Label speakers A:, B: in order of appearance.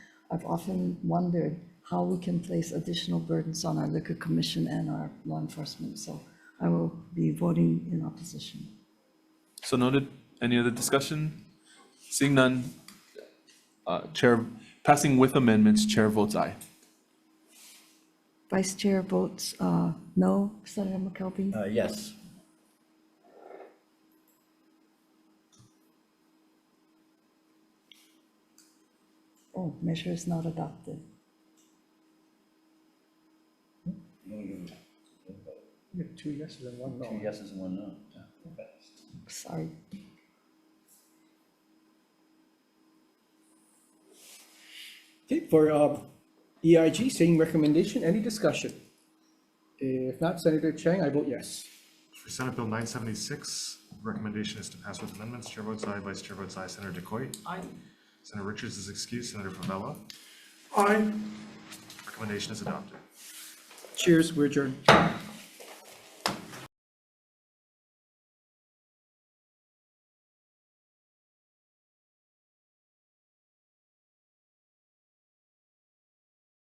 A: I've often wondered how we can place additional burdens on our liquor commission and our law enforcement, so I will be voting in opposition.
B: So noted. Any other discussion? Seeing none. uh, Chair, passing with amendments, chair votes aye.
A: Vice Chair votes uh, no. Senator McKelvey?
C: Uh, yes.
A: Oh, measure is not adopted.
D: You have two yeses and one no.
C: Two yeses and one no.
A: Sorry.
D: Okay, for uh, EIG, same recommendation, any discussion? If not, Senator Chang, I vote yes.
E: For Senate Bill 976, recommendation is to pass with amendments. Chair votes aye, Vice Chair votes aye. Senator Decoit? Aye. Senator Richards is excused. Senator Pavella? Aye. Recommendation is adopted.
D: Cheers, we're adjourned.